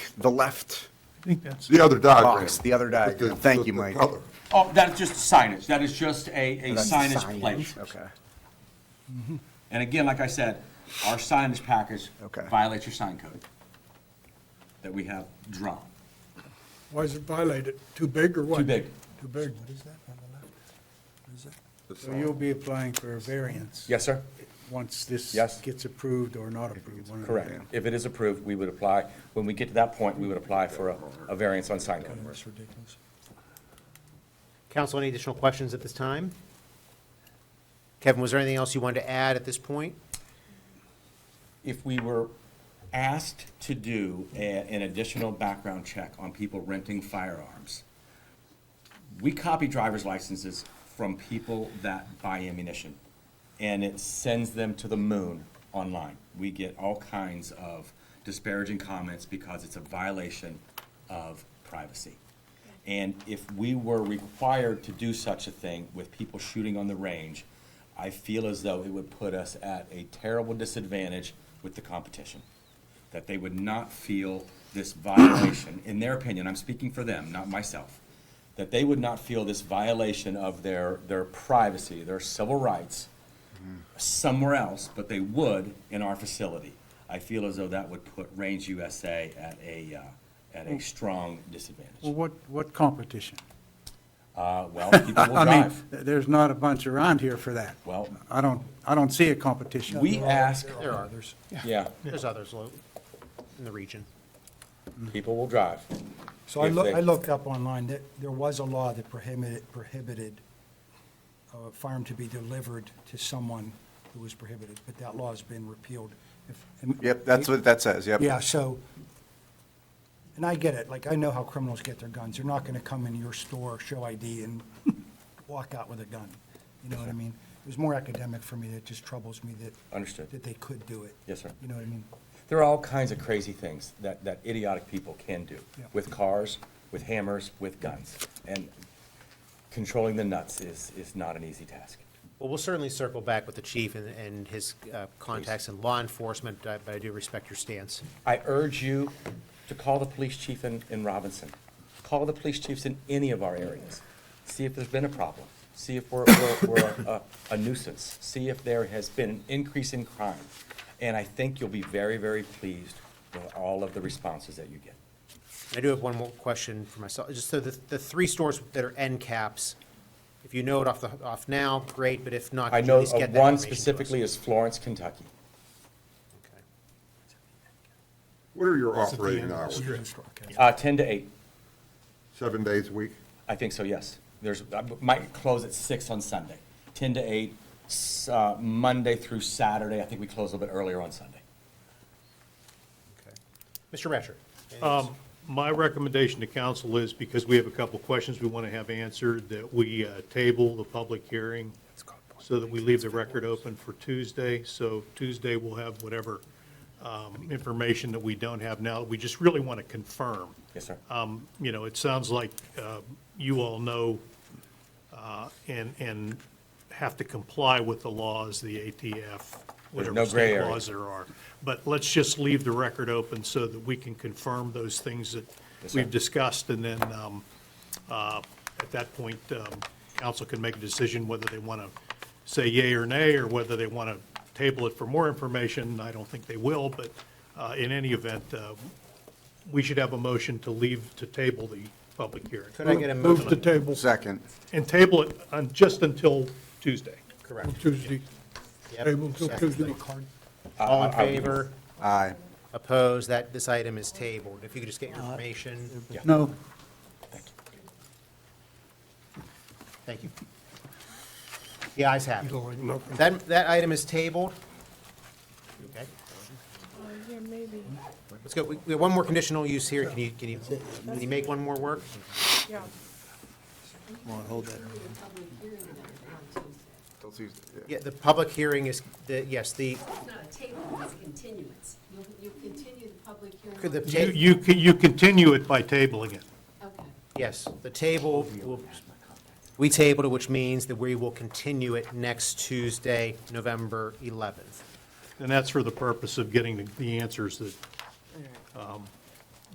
the left I think that's, The other diagram. box, the other diagram. The- Thank the- you, the Mike. color. Oh, that's just signage, that is just a, a That's signage plate. Okay, And again, like I said, our signage package Okay. violates your sign code that we have drawn. Why is it violated? Too big or what? Too big. Too big. What is that on the left? What is that? so you'll be applying for a variance? Yes, sir? Once this Yes. gets approved or not approved? one or the Correct. other. If it is approved, we would apply, when we get to that point, we would apply for a, a variance on sign code. That's ridiculous. Council, any additional questions at this time? Kevin, was there anything else you wanted to add at this point? If we were asked to do a- an additional background check on people renting firearms, we copy driver's licenses from people that buy ammunition, and it sends them to the moon online. We get all kinds of disparaging comments because it's a violation of privacy. And if we were required to do such a thing with people shooting on the range, I feel as though it would put us at a terrible disadvantage with the competition. That they would not feel this violation, in their opinion, I'm speaking for them, not myself, that they would not feel this violation of their, their privacy, their civil rights somewhere else, but they would in our facility. I feel as though that would put Range USA at a, uh, at Mm. a strong Well, disadvantage. what, what competition? Uh, well, people will I mean, drive. th- there's not a bunch around here for that. Well- I don't, I don't see a competition. We ask, There are others. yeah, There's others lo- in the region. people will drive. So I If look, they- I looked up online, that there was a law that prohibited, prohibited uh, a farm to be delivered to someone who was prohibited, but that law has been repealed. If- and- yep, that's what that says, yep. Yeah, so, and I get it, like, I know how criminals get their guns, they're not gonna come into your store, show ID, and walk out with a gun, you know what I mean? It was more academic for me, it just troubles me that. Understood. That they could do it. Yes, sir. You know what I mean? There are all kinds of crazy things that, that idiotic people can do Yeah. with cars, with hammers, with guns. And controlling the nuts is, is not an easy task. Well, we'll certainly circle back with the chief and, and his uh, contacts in law enforcement, uh, but I do respect your stance. I urge you to call the police chief in, in Robinson. Call the police chiefs in any of our areas. See if there's been a problem. See if we're, we're, we're a, a nuisance. See if there has been an increase in crime. And I think you'll be very, very pleased with all of the responses that you get. I do have one more question for myself, just so the, the three stores that are end caps, if you know it off the, off now, great, but if not, I could you at know least of get that one information to us? specifically is Florence, Kentucky. Okay. What are your operating hours? Okay. Uh, ten to eight, Seven days a week? I think so, yes. There's, I might close at six on Sunday, ten to eight, s- uh, Monday through Saturday. I think we close a little bit earlier on Sunday. Okay. Mr. Ratcher? anything else? Um, My recommendation to council is, because we have a couple of questions we want to have answered, that we uh, table the public hearing so that we leave the record open for Tuesday. So Tuesday, we'll have whatever um, information that we don't have now. We just really want to confirm. Yes, sir. Um, You know, it sounds like uh, you all know uh, and, and have to comply with the laws, the ATF, no whatever gray state area. laws there are. But let's just leave the record open so that we can confirm those things that Yes, sir. we've discussed. And then um, uh, at that point, um, council can make a decision whether they want to say yay or nay, or whether they want to table it for more information. I don't think they will, but uh, in any event, uh, we should have a motion to leave, to table the public hearing. Could I get a Move to motion? table Second, And table it on- just until Tuesday. Correct. Tuesday. Yep. Table till Tuesday. All in favor? aye. Opposed? That, this item is tabled. If you could just get your Uh, information. No, Thank you. The ayes have it. That, that item is tabled. Okay. Oh, Yeah, maybe, Let's go. We we have one more conditional use here. Can you, can you, can you make one more work? yeah. Don't see- yeah. Yeah, the public hearing is, the, yes, the, It's not a table, it's a continuance. You'll, you'll continue the public hearing. could the, You, ta- you can- you continue it by tabling it. Okay. yes, the table, will- we tabled it, which means that we will continue it next Tuesday, November 11th. And that's for the purpose of getting the- the answers that um,